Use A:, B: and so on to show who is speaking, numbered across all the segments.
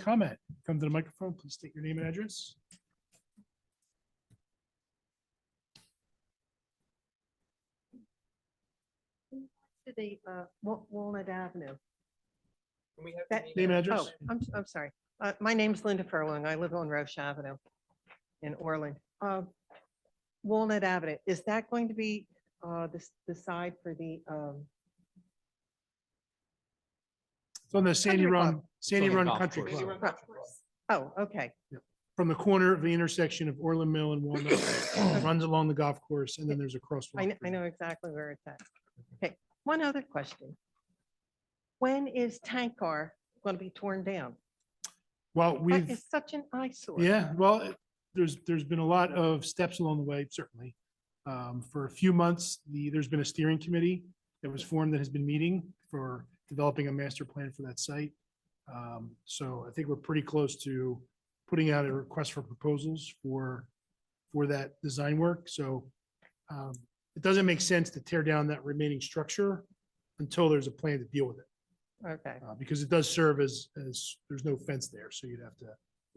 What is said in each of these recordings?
A: comment, come to the microphone, please state your name and address.
B: to the uh, Wa- Walnut Avenue.
C: Can we have
B: That-
C: the meeting?
A: Name and
B: Oh,
A: address.
B: I'm, I'm sorry. Uh, My name's Linda Furlong. I live on Roche Avenue in Orland. Uh, Walnut Avenue, is that going to be uh, the, s- the side for the, um,
A: It's on the Sandy
B: Country
A: Run,
B: Club.
A: Sandy
D: It's on the
A: Run
D: golf
A: Country
D: course.
C: Maybe
A: Club,
C: run country club.
B: oh, okay,
A: from the corner of the intersection of Orland Mill and Walnut, runs along the golf course, and then there's a crosswalk.
B: I, kn- I know exactly where it's at. Okay, one other question. When is Tank Car going to be torn down?
A: Well,
B: That
A: we've,
B: is such an eyesore.
A: yeah, well, it- there's, there's been a lot of steps along the way, certainly. Um, For a few months, the, there's been a steering committee that was formed that has been meeting for developing a master plan for that site. Um, So I think we're pretty close to putting out a request for proposals for, for that design work. So um, it doesn't make sense to tear down that remaining structure until there's a plan to deal with it.
B: Okay,
A: uh, because it does serve as, as, there's no fence there, so you'd have to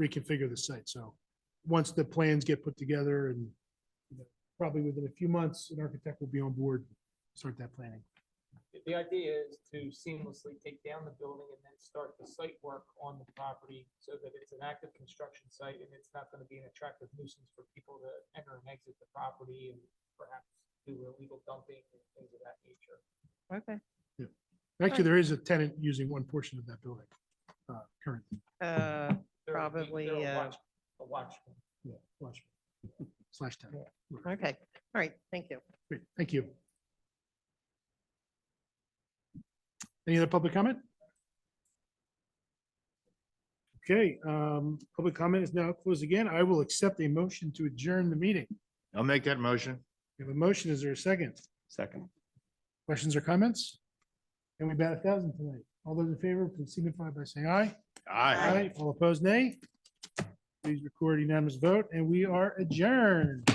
A: reconfigure the site. So once the plans get put together and you know, probably within a few months, an architect will be on board, start that planning.
C: The idea is to seamlessly take down the building and then start the site work on the property so that it's an active construction site and it's not gonna be an attractive nuisance for people to enter and exit the property and perhaps do illegal dumping and things of that nature.
B: okay.
A: Actually, there is a tenant using one portion of that building uh, currently.
B: Uh,
C: There would be-
B: Probably,
C: there are
B: uh,
C: watch- A watchman.
A: Yeah, Watch Slash tenant.
B: Okay, all right, thank you.
A: Great, thank you. Any other public comment? Okay, um, public comment is now closed again. I will accept a motion to adjourn the meeting.
D: I'll make that motion.
A: We have a motion. Is there a second?
D: Second.
A: Questions or comments? Can we bat a thousand tonight? All those in favor, please signify by saying aye.
D: Aye.
A: All opposed, nay. Please record unanimous vote, and we are adjourned.